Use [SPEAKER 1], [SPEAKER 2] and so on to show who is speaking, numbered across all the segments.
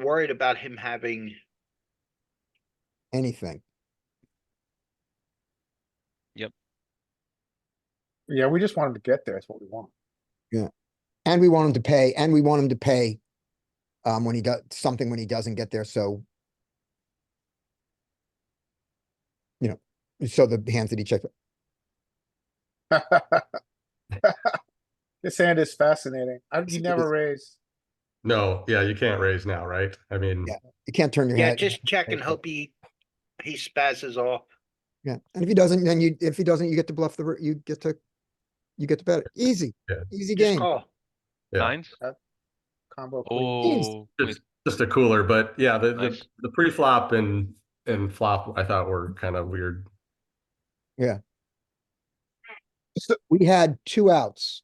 [SPEAKER 1] worried about him having,
[SPEAKER 2] anything.
[SPEAKER 3] Yeah, we just want him to get there. That's what we want.
[SPEAKER 2] And we want him to pay, and we want him to pay um, when he does, something when he doesn't get there, so. You know, so the hands that he checked,
[SPEAKER 3] This hand is fascinating. I,
[SPEAKER 2] It
[SPEAKER 3] you never
[SPEAKER 2] is.
[SPEAKER 3] raise.
[SPEAKER 4] No, yeah, you can't raise now, right? I mean,
[SPEAKER 2] Yeah. you can't turn your
[SPEAKER 1] yeah,
[SPEAKER 2] head.
[SPEAKER 1] just check and hope he, he spazzes off.
[SPEAKER 2] Yeah, and if he doesn't, then you, if he doesn't, you get to bluff the, r- you get to, you get to bet it. Easy,
[SPEAKER 4] Yeah.
[SPEAKER 2] easy
[SPEAKER 1] Just
[SPEAKER 2] game.
[SPEAKER 1] call.
[SPEAKER 4] Yeah.
[SPEAKER 5] Nines?
[SPEAKER 3] Combo. queen.
[SPEAKER 5] Oh, wait,
[SPEAKER 4] just, just a cooler, but yeah, the, the,
[SPEAKER 5] Nice.
[SPEAKER 4] the pre-flop and, and flop, I thought were kind of weird.
[SPEAKER 2] We had two outs.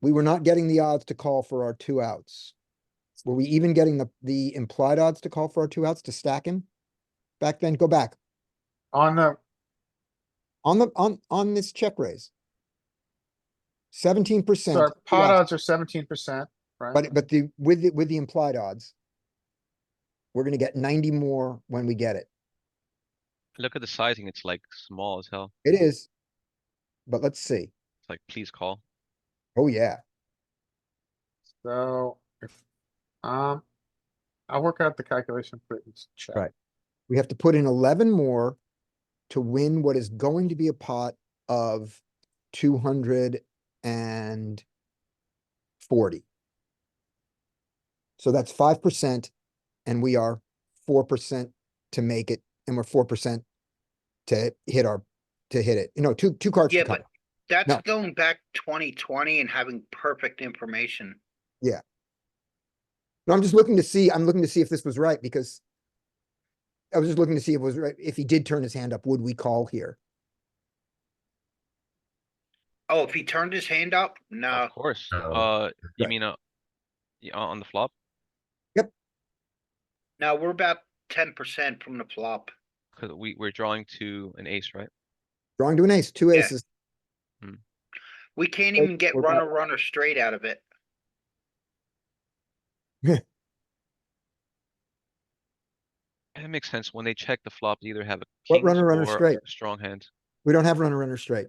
[SPEAKER 2] We were not getting the odds to call for our two outs. Were we even getting the, the implied odds to call for our two outs to stack him? Back then, go back.
[SPEAKER 3] On the,
[SPEAKER 2] On the, on, on this check raise. Seventeen
[SPEAKER 3] so
[SPEAKER 2] percent.
[SPEAKER 3] our pot odds are seventeen percent, right?
[SPEAKER 2] But, but the, with, the with the implied odds. We're gonna get ninety more when we get it.
[SPEAKER 5] look at the sizing, it's like small as hell.
[SPEAKER 2] It is. But let's see.
[SPEAKER 5] It's like, please call.
[SPEAKER 2] Oh, yeah.
[SPEAKER 3] So, if, um, I'll work out the calculation for it. Let's check.
[SPEAKER 2] Right. We have to put in eleven more to win what is going to be a pot of two hundred and forty. So that's five percent and we are four percent to make it and we're four percent to hit our, to hit it. You know, two, two cards. to
[SPEAKER 1] Yeah,
[SPEAKER 2] cover.
[SPEAKER 1] but that's
[SPEAKER 2] No.
[SPEAKER 1] going back twenty twenty and having perfect information.
[SPEAKER 2] No, I'm just looking to see, I'm looking to see if this was right because I was just looking to see if it was right. If he did turn his hand up, would we call here?
[SPEAKER 1] Oh, if he turned his hand up, no,
[SPEAKER 5] Of
[SPEAKER 2] Oh.
[SPEAKER 5] course,
[SPEAKER 4] No.
[SPEAKER 5] uh, you
[SPEAKER 2] Right.
[SPEAKER 5] mean, uh, y- on on the flop?
[SPEAKER 1] no, we're about ten percent from the flop.
[SPEAKER 5] Cause we, we're drawing to an ace, right?
[SPEAKER 2] Drawing to an ace, two
[SPEAKER 1] Yeah.
[SPEAKER 2] aces.
[SPEAKER 1] We can't
[SPEAKER 2] Oh,
[SPEAKER 1] even get
[SPEAKER 2] we're about-
[SPEAKER 1] runner, runner straight out of it.
[SPEAKER 5] It makes sense, when they check the flop, they either have a
[SPEAKER 2] What
[SPEAKER 5] kings
[SPEAKER 2] runner, runner
[SPEAKER 5] or
[SPEAKER 2] straight?
[SPEAKER 5] a strong hand.
[SPEAKER 2] We don't have runner, runner straight.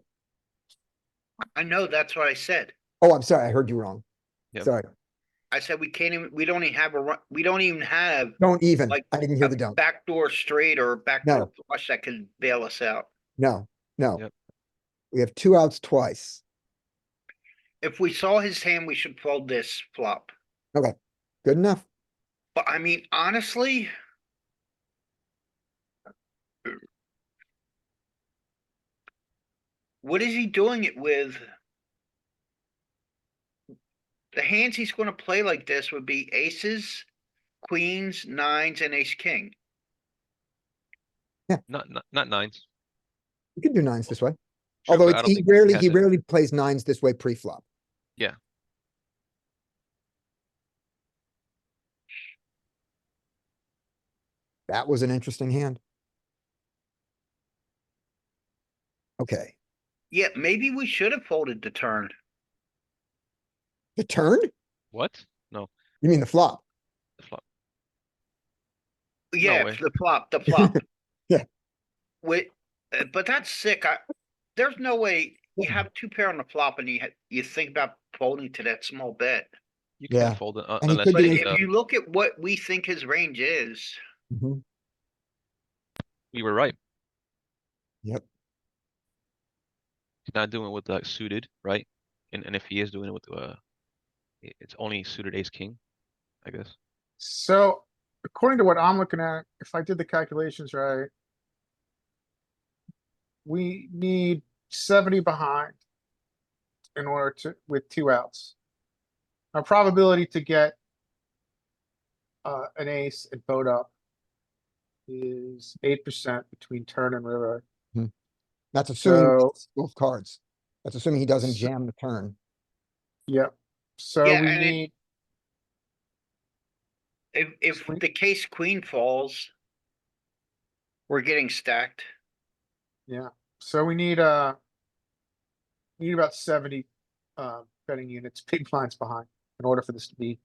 [SPEAKER 1] I know, that's what I said.
[SPEAKER 2] Oh, I'm sorry, I heard you wrong.
[SPEAKER 5] Yep.
[SPEAKER 2] Sorry,
[SPEAKER 1] I said we can't even, we don't even have a, run. we don't even have
[SPEAKER 2] don't even.
[SPEAKER 1] Like,
[SPEAKER 2] I didn't
[SPEAKER 1] a
[SPEAKER 2] hear the don't.
[SPEAKER 1] backdoor straight or a backdoor flush that can bail us out.
[SPEAKER 2] No, no.
[SPEAKER 5] Yep.
[SPEAKER 2] We have two outs twice.
[SPEAKER 1] If we saw his hand, we should fold this flop.
[SPEAKER 2] Good enough.
[SPEAKER 1] But I mean, honestly. What is he doing it with? The hands he's gonna play like this would be aces, queens, nines, and ace king.
[SPEAKER 5] Not, not, not nines.
[SPEAKER 2] We could do nines this way,
[SPEAKER 5] Sure,
[SPEAKER 2] although
[SPEAKER 5] but
[SPEAKER 2] it's-
[SPEAKER 5] I don't
[SPEAKER 2] he
[SPEAKER 5] think
[SPEAKER 2] rarely,
[SPEAKER 5] has
[SPEAKER 2] he
[SPEAKER 5] it.
[SPEAKER 2] rarely plays nines this way pre-flop.
[SPEAKER 5] Yeah.
[SPEAKER 2] That was an interesting hand. Okay,
[SPEAKER 1] Yeah, maybe we should have folded the turn.
[SPEAKER 2] the turn?
[SPEAKER 5] What? No,
[SPEAKER 2] You mean the flop?
[SPEAKER 5] the flop.
[SPEAKER 1] Yeah,
[SPEAKER 5] way.
[SPEAKER 1] the flop, the flop.
[SPEAKER 2] Yeah.
[SPEAKER 1] Wait, uh, but that's sick. I, there's no way you have two pair on the flop and you, ha- you think about folding to that small bet.
[SPEAKER 5] You
[SPEAKER 2] Yeah.
[SPEAKER 5] can't fold it uh,
[SPEAKER 2] And he
[SPEAKER 5] unless.
[SPEAKER 2] could
[SPEAKER 1] But
[SPEAKER 2] do
[SPEAKER 5] it's,
[SPEAKER 2] it-
[SPEAKER 5] uh,
[SPEAKER 1] if you look at what we think his range is,
[SPEAKER 2] Mhm.
[SPEAKER 5] We were right.
[SPEAKER 2] Yep.
[SPEAKER 5] He's not doing it with like suited, right? And and if he is doing it with uh, i- it's only suited ace king, I guess.
[SPEAKER 3] So according to what I'm looking at, if I did the calculations right, we need seventy behind in order to, with two outs. Our probability to get uh, an ace and boat up is eight percent between turn and river.
[SPEAKER 2] That's assuming
[SPEAKER 3] So-
[SPEAKER 2] both cards. That's assuming he doesn't
[SPEAKER 3] So-
[SPEAKER 2] jam the turn.
[SPEAKER 3] Yep. So
[SPEAKER 1] Yeah,
[SPEAKER 3] we
[SPEAKER 1] and it-
[SPEAKER 3] need,
[SPEAKER 1] if, if
[SPEAKER 3] Sweet.
[SPEAKER 1] the case queen falls, we're getting stacked.
[SPEAKER 3] yeah, so we need, uh, we need about seventy, uh, betting units, big blinds behind in order for this to be